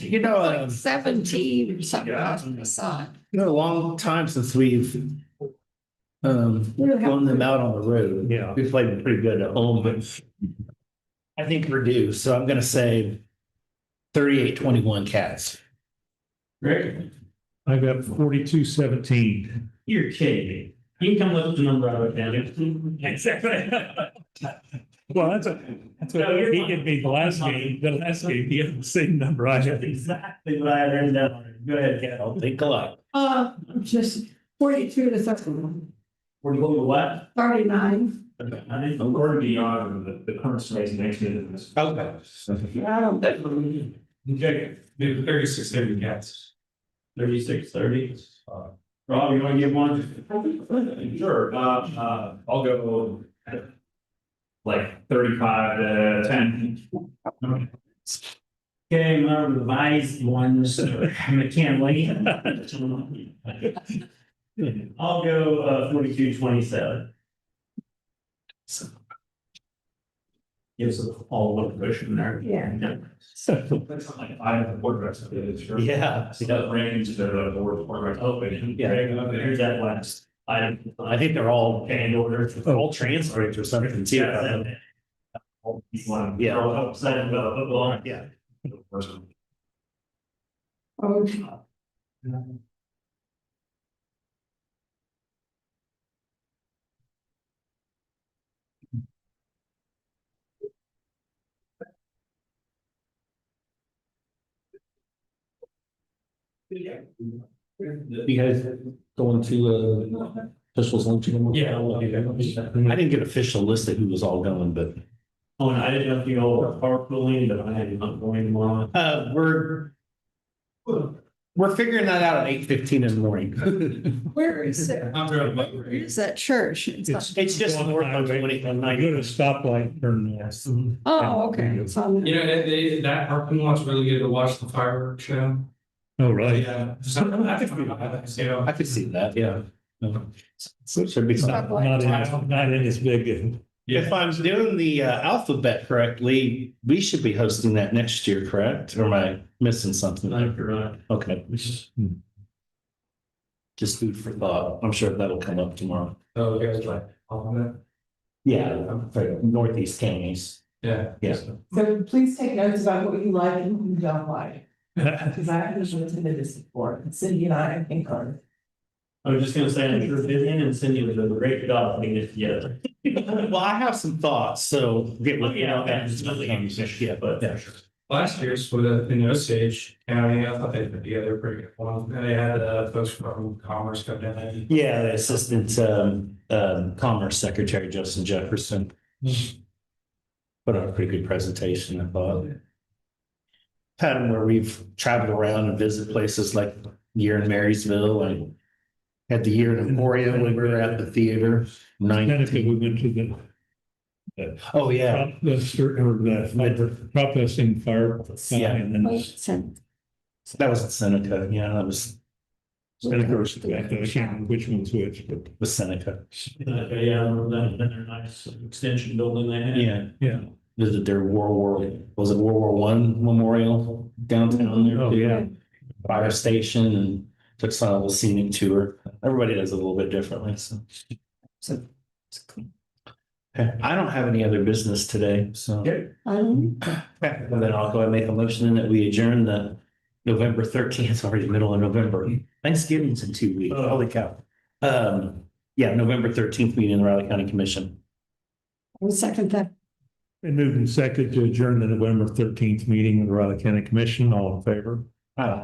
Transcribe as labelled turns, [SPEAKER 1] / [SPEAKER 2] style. [SPEAKER 1] You know, uh,
[SPEAKER 2] like seventeen or something.
[SPEAKER 1] Yeah.
[SPEAKER 2] I saw it.
[SPEAKER 1] you know, a long time since we've um, blown them out on the road.
[SPEAKER 3] Yeah.
[SPEAKER 1] We played them pretty good at home, but I think we're due, so I'm gonna say thirty-eight, twenty-one cats.
[SPEAKER 4] Rick,
[SPEAKER 3] I got forty-two seventeen.
[SPEAKER 4] you're kidding me. You can come up with the number I wrote down. Exactly.
[SPEAKER 3] Well, that's a, that's
[SPEAKER 4] No,
[SPEAKER 3] what
[SPEAKER 4] you're
[SPEAKER 3] he
[SPEAKER 4] fine.
[SPEAKER 3] gave me the last game, the last game, he had the same number I
[SPEAKER 4] That's
[SPEAKER 3] had.
[SPEAKER 4] exactly what I had written down. Go ahead, Cal.
[SPEAKER 1] I'll think a lot.
[SPEAKER 2] Uh, just forty-two to thirty-one,
[SPEAKER 4] We're going to what?
[SPEAKER 2] thirty-nine.
[SPEAKER 4] I think we're beyond the, the current space next to this.
[SPEAKER 1] Okay.
[SPEAKER 4] Okay, maybe thirty-six, thirty cats. Thirty-six, thirty. Rob, you wanna give one? Sure, uh, uh, I'll go. Like thirty-five to ten. Okay, my revised ones, I'm a can wait. I'll go, uh, forty-two, twenty-seven. Gives us all one cushion there.
[SPEAKER 2] Yeah.
[SPEAKER 4] That's not like I have a board rest. Yeah.
[SPEAKER 1] Yeah,
[SPEAKER 4] So that brings the board board rest open.
[SPEAKER 1] Yeah.
[SPEAKER 4] Here's that last item.
[SPEAKER 1] I think they're all,
[SPEAKER 4] And order. to-
[SPEAKER 1] all transferred or something too.
[SPEAKER 4] Yeah. All these one.
[SPEAKER 1] Yeah.
[SPEAKER 4] Throw it upside and go up along.
[SPEAKER 1] Yeah.
[SPEAKER 4] First one.
[SPEAKER 2] Oh,
[SPEAKER 5] You guys going to uh officials luncheon?
[SPEAKER 4] Yeah, I'll do
[SPEAKER 1] I
[SPEAKER 4] that.
[SPEAKER 1] didn't get official list of who was all going, but
[SPEAKER 4] Oh, and I didn't know if you all were carpooling, but I am not going tomorrow.
[SPEAKER 1] uh, we're we're figuring that out at eight fifteen in the morning.
[SPEAKER 2] Where is it?
[SPEAKER 5] I'm
[SPEAKER 2] Where is that church? It's not-
[SPEAKER 1] It's just north of twenty one
[SPEAKER 3] I go to
[SPEAKER 1] ninety.
[SPEAKER 3] stoplight, turn left.
[SPEAKER 2] Oh, okay. It's on
[SPEAKER 5] You
[SPEAKER 2] there.
[SPEAKER 5] know, that they, that parking lot's really good to watch the fireworks show.
[SPEAKER 3] Oh, right.
[SPEAKER 5] Yeah. So, I think we have, you know.
[SPEAKER 1] I could see that, yeah. No. Should be something.
[SPEAKER 3] Not not in, not in as big.
[SPEAKER 1] If I'm doing the uh, alphabet correctly, we should be hosting that next year, correct? Or am I missing something?
[SPEAKER 4] Like, you're right.
[SPEAKER 1] Okay, just food for thought. I'm sure that'll come up tomorrow.
[SPEAKER 5] Oh, you guys like, all of that?
[SPEAKER 1] Yeah, for northeast counties.
[SPEAKER 5] Yeah.
[SPEAKER 1] Yeah.
[SPEAKER 6] So please take notes about what you like and what you don't like,
[SPEAKER 3] Hmm.
[SPEAKER 6] because I have usually attended this before, and Cindy and I, I think are.
[SPEAKER 4] I was just gonna say, I'm sure Vivian and Cindy would do a great job putting this together.
[SPEAKER 1] Well, I have some thoughts, so get with me
[SPEAKER 4] Yeah,
[SPEAKER 1] on
[SPEAKER 4] okay,
[SPEAKER 1] that.
[SPEAKER 4] it's not like I'm saying
[SPEAKER 1] Yeah,
[SPEAKER 4] shit,
[SPEAKER 1] but
[SPEAKER 4] but.
[SPEAKER 1] yeah.
[SPEAKER 5] Last year's with uh, in Osage County, I thought they put together a pretty good one. And they had uh folks from Commerce come down and.
[SPEAKER 1] Yeah, the Assistant um, um, Commerce Secretary Justin Jefferson. Put on a pretty good presentation, I thought. Had them where we've traveled around and visited places like year in Marysville and had the year in Emporia when we were at the theater.
[SPEAKER 3] Kind of,
[SPEAKER 1] Nineteen,
[SPEAKER 3] we went to the
[SPEAKER 1] oh yeah,
[SPEAKER 3] prop, the, cer- or the prop testing fire.
[SPEAKER 1] Yeah.
[SPEAKER 3] And then
[SPEAKER 2] Wait, it's in-
[SPEAKER 1] that was at Seneca, yeah, that was,
[SPEAKER 3] And of course, I can't remember which one's which, but
[SPEAKER 1] was Seneca,
[SPEAKER 4] Okay, yeah, I remember that, then their nice extension building they had.
[SPEAKER 1] yeah.
[SPEAKER 3] yeah.
[SPEAKER 1] Visited their World War, was it World War One Memorial downtown there?
[SPEAKER 3] Oh,
[SPEAKER 1] too.
[SPEAKER 3] yeah.
[SPEAKER 1] fire station and took some little scenic tour. Everybody does it a little bit differently, so.
[SPEAKER 2] So,
[SPEAKER 1] Okay, I don't have any other business today, so.
[SPEAKER 4] Okay.
[SPEAKER 2] I don't,
[SPEAKER 1] And Then I'll go and make a motion that we adjourn the November thirteenth, it's already middle of November. Thanksgiving's in two weeks,
[SPEAKER 4] Oh.
[SPEAKER 1] holy cow. Um, yeah, November thirteenth meeting in the Riley County Commission.
[SPEAKER 2] I'll second that.
[SPEAKER 3] And moved in second to adjourn the November thirteenth meeting of the Riley County Commission, all in favor?
[SPEAKER 1] Wow.